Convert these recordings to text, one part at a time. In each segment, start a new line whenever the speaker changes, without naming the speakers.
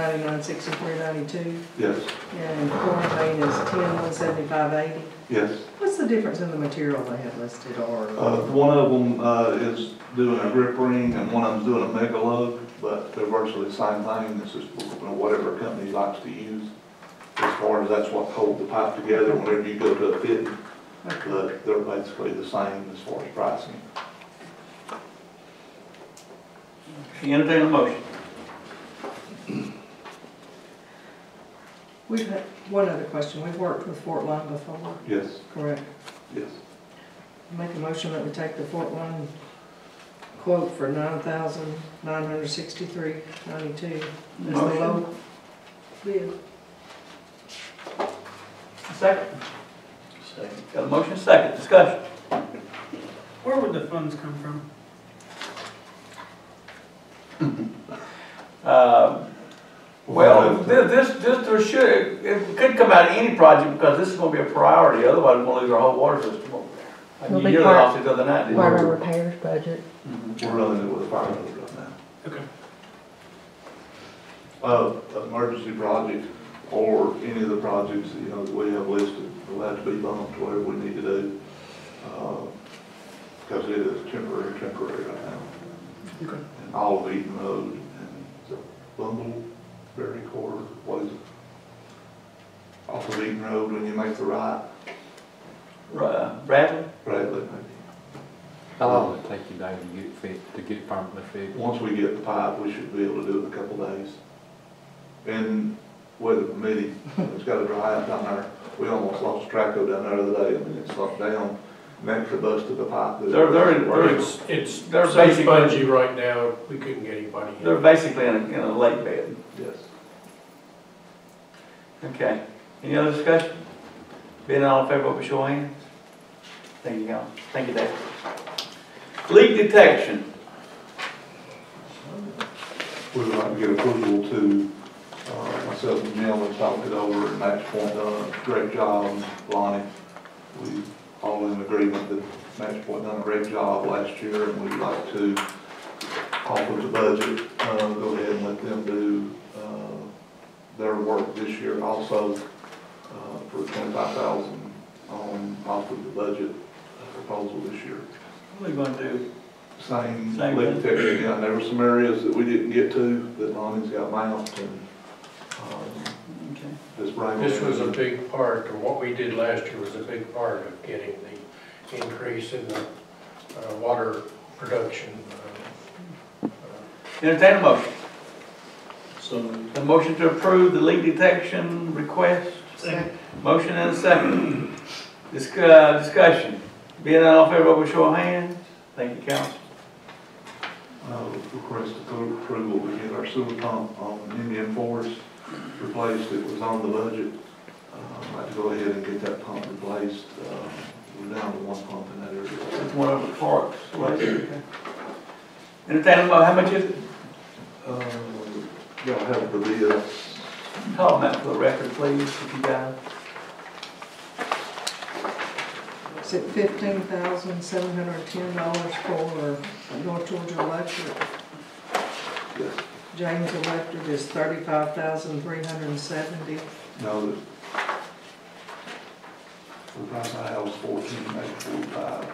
ninety-nine sixty-three ninety-two,
Yes,
and quarantine is ten one seventy-five eighty.
yes.
What's the difference in the material they have listed or?
Uh, One of them uh, is doing a grip ring and one of them's doing a mega lug, but they're virtually the same thing. This is whatever company likes to use. As far as that's what hold the pipe together whenever you go to a fit, but they're basically the same as far as pricing.
Entertain a motion.
We've had, one other question, we've worked with Fort Line before,
Yes,
correct?
yes.
Make a motion that we take the Fort Line quote for nine thousand nine hundred sixty-three ninety-two. That's the
Motion.
low bid.
Second. Second. Got a motion, second, discussion.
Where would the funds come from?
Uh, Well, thi- this, this, there should, it could come out of any project because this is gonna be a priority, otherwise we're gonna lose our whole water system over there.
It'll
And
be
you
part-
lost it the other night, didn't
Part of
you?
our repairs budget.
Mhm.
We're running it with a fire hydrant right now.
Okay.
Uh, emergency project or any of the projects, you know, that we have listed, will have to be bumped to whatever we need to do. Because it is temporary, temporary right now.
Okay.
And all of Eaton Road and the Bumbleberry Court, what is it? Off of Eaton Road when you make the right,
Ra- Bradley?
Bradley,
How long would it take you, Dave, to get it fixed, to get it permanently fixed?
Once we get the pipe, we should be able to do it in a couple days. And weather permitting, it's got to dry out down there. We almost lost Traco down there the other day, I mean, it slumped down, meant to bust of the pipe.
They're, they're, they're,
It's, it's
They're
so
basically-
spongy right now, we couldn't get anybody in.
they're basically in a, in a lake bed.
Yes.
Okay. Any other discussion? Being all in favor, vote by show of hands. Thank you, Alan. Thank you, Dave. Leak detection.
We would like to get approval to, uh, myself and Jim, we talked it over and Max Point done a great job, Lonnie. We all in agreement that Max Point done a great job last year and we'd like to offer the budget, uh, go ahead and let them do, uh, their work this year also, uh, for twenty-five thousand on, off of the budget uh, proposal this year
What are we gonna do?
same
Same
leak
thing.
detection, yeah, there were some areas that we didn't get to, that Lonnie's got mapped and, um,
Okay.
this right.
This was a big part, or what we did last year was a big part of getting the increase in the uh, water production. uh, uh,
Entertain a motion.
So.
The motion to approve the leak detection request.
Second.
Motion and a second. Disc- uh, Discussion. Being all in favor, vote by show of hands. Thank you, council.
Uh, request approval to get our sewer pump on Indian Forest replaced, it was on the budget. Uh, I'd like to go ahead and get that pump replaced, uh, we're down to one pump in that area.
That's one of the parks. right? Okay. Entertain a mo, how much is it?
Uh, y'all have the bill,
Call them out for the record, please, if you guys.
Is it fifteen thousand seven hundred ten dollars for North Georgia Electric?
yes,
James Electric is thirty-five thousand three hundred and seventy.
no, the the price I have was fourteen, maybe forty-five,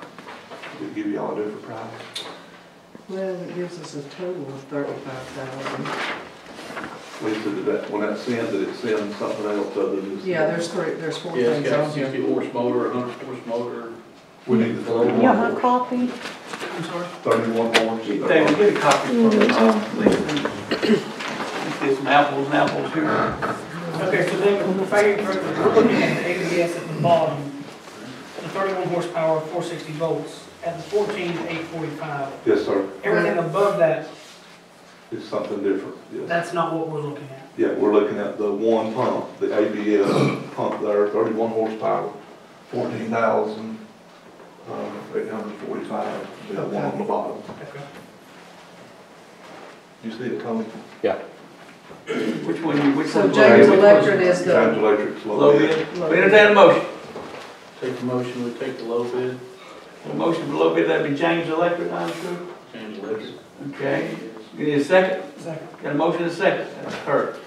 to give y'all a different price.
Well, it gives us a total of thirty-five thousand.
We said that when that sends it, it sends something else other than.
Yeah, there's three, there's four things on here.
horse motor, hundred horse motor.
We need the
You want my
thirty-one more.
coffee?
I'm sorry?
Thirty-one more.
David, get a copy for me, uh, please. Let's get some apples and apples here.
Okay, so then, if I, we're looking at the ABS at the bottom, the thirty-one horsepower, four sixty volts, at the fourteen, eight forty-five.
Yes, sir,
Everything above that,
it's something different, yes.
that's not what we're looking at.
Yeah, we're looking at the one pump, the ABS pump there, thirty-one horsepower, fourteen thousand, um, eight hundred forty-five, that one on the bottom.
Okay.
You see it coming?
Which one you, which
So
one?
James Electric is
Times
the,
electric's
Low
low bid.
bid. We entertain a motion.
Take the motion, we take the low bid,
A motion for low bid, that'd be James Electric, I'm sure.
change the list.
Okay. You need a second?
Second.
Got a motion and a second, that's heard.